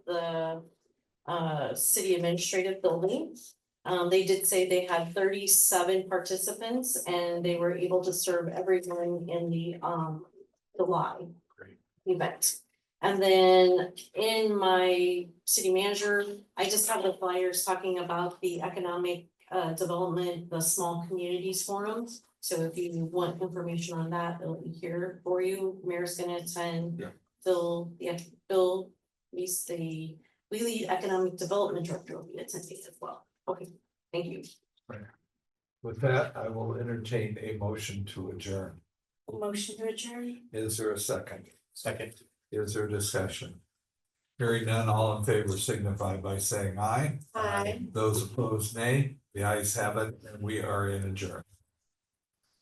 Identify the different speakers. Speaker 1: the uh city administrative building. Um, they did say they had thirty-seven participants and they were able to serve everyone in the um July
Speaker 2: Great.
Speaker 1: event. And then in my city manager, I just have the flyers talking about the economic uh development, the small communities forums. So if you want information on that, it'll be here for you. Mayor's gonna attend.
Speaker 2: Yeah.
Speaker 1: Bill, yeah, Bill, he's the Wheelie Economic Development Director will be attending as well. Okay, thank you.
Speaker 2: With that, I will entertain a motion to adjourn.
Speaker 1: Motion to adjourn?
Speaker 2: Is there a second? Second. Is there discussion? Hearing none, all in favor signify by saying aye.
Speaker 1: Aye.
Speaker 2: Those opposed, nay. The ayes have it, and we are in adjourn.